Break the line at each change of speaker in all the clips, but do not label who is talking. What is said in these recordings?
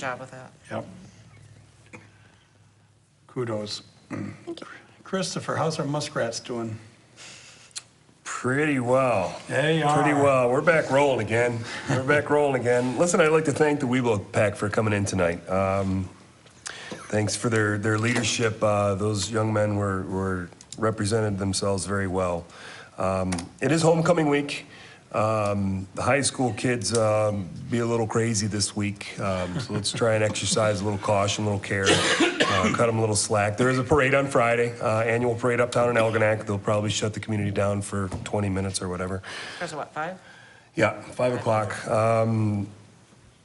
job with that.
Yep. Kudos. Christopher, how's our muskrats doing?
Pretty well.
They
Pretty
are.
well. We're back rolling again. We're back rolling again. Listen, I'd like to thank the Weebo Pack for coming in tonight. Um, thanks for their, their leadership. Uh, those young men were, were represented themselves very well. Um, it is homecoming week. Um, the high school kids um, be a little crazy this week, um, so let's try and exercise a little caution, a little care, uh, cut them a little slack. There is a parade on Friday, uh, annual parade uptown in Algonac. They'll probably shut the community down for 20 minutes or whatever.
There's what, five?
Yeah, five o'clock. Um,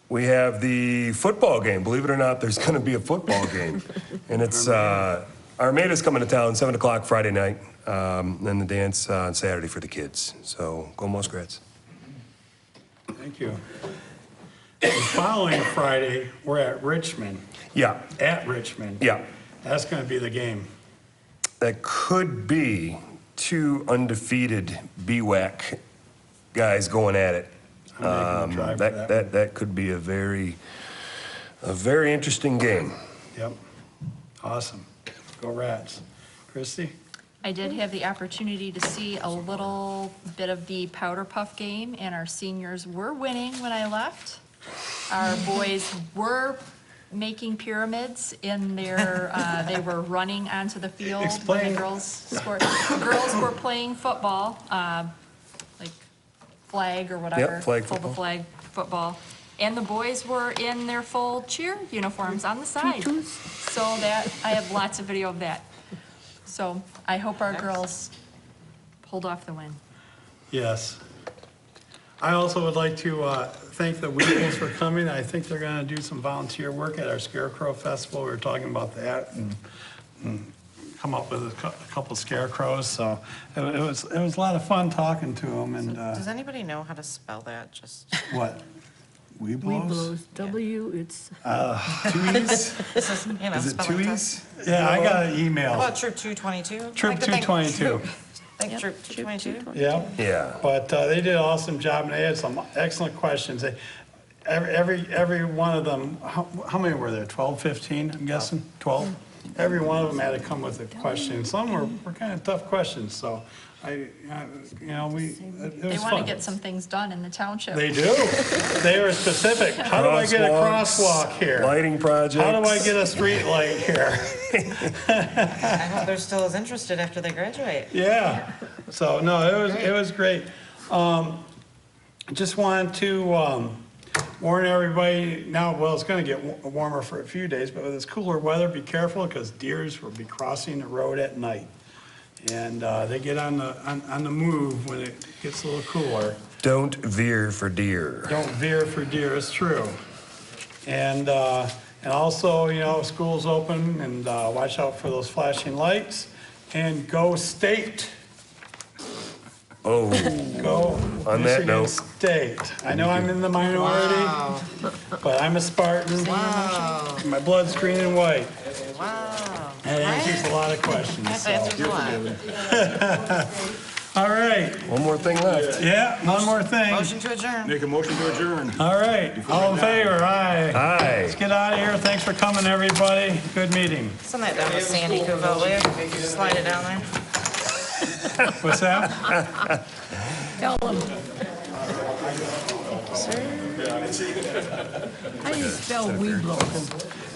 we have the football game. Believe it or not, there's going to be a football game, and it's uh, Armada's coming to town seven o'clock Friday night, um, and then the dance on Saturday for the kids. So go Muskrats!
Thank you. The following Friday, we're at Richmond,
Yeah,
at Richmond.
Yeah.
That's going to be the game.
that could be two undefeated BWAC guys going at it.
I'm making a
Um,
drive for
that,
that
that that could be a very a very interesting game.
Yep. Awesome. Go Rats. Christie?
I did have the opportunity to see a little bit of the powder puff game, and our seniors were winning when I left. Our boys were making pyramids in their, uh, they were running onto the field. when the
Explain.
Girls scored, the girls were playing football, uh, like flag or whatever.
flag
full
football.
flag football. And the boys were in their full cheer uniforms on the side. So that, I have lots of video of that. So I hope our girls pulled off the win.
Yes. I also would like to uh, thank the Weebles for coming. I think they're going to do some volunteer work at our Scarecrow Festival. We were talking about that and and come up with a cou- a couple scarecrows, so it wa- it was, it was a lot of fun talking to them and uh,
Does anybody know how to spell that? Just,
what? Weebles?
Weeblos, W, it's,
Twoies?
this is, you know,
Is it
spelling
twoies?
test.
Yeah, I got an
How
email.
about Troop 222?
Troop 222.
Think Troop
Troop
222?
Yeah.
Yeah.
But uh, they did an awesome job, and they had some excellent questions. They- Every, every, every one of them, how, how many were there, 12, 15, I'm guessing, 12? Every one of them had to come with a question. Some were, were kind of tough questions, so I, I- you know, we, it it
They
was
want to
fun.
get some things done in the township.
They do. They are specific. How do I get a
Crosswalks,
crosswalk here?
Lighting projects.
How do I get a street light here?
I hope they're still as interested after they graduate.
Yeah, so, no, it was, it was great. Um, Just wanted to um, warn everybody, now, well, it's gonna get wa- warmer for a few days, but with this cooler weather, be careful, because deers will be crossing the road at night. And uh, they get on the, on on the move when it gets a little cooler.
Don't veer for deer.
Don't veer for deer, it's true. And, uh, and also, you know, school's open, and uh, watch out for those flashing lights, and go state.
Oh,
Go
On that
Michigan
note-
State. I know I'm in the minority, but I'm a Spartan. My blood's green and white.
Wow.
And it answers a lot of questions,
That
so.
answers a lot.
All right,
one more thing left.
yeah, one more thing.
Motion to adjourn.
Make a motion to adjourn.
All right, all in favor, aye.
Hi.
Let's get out of here. Thanks for coming, everybody. Good meeting.
Send that down to Sandy Kuvo, will you? Slide it down there.
What's that?
tell them,
Sir?
how do you spell Weeblos?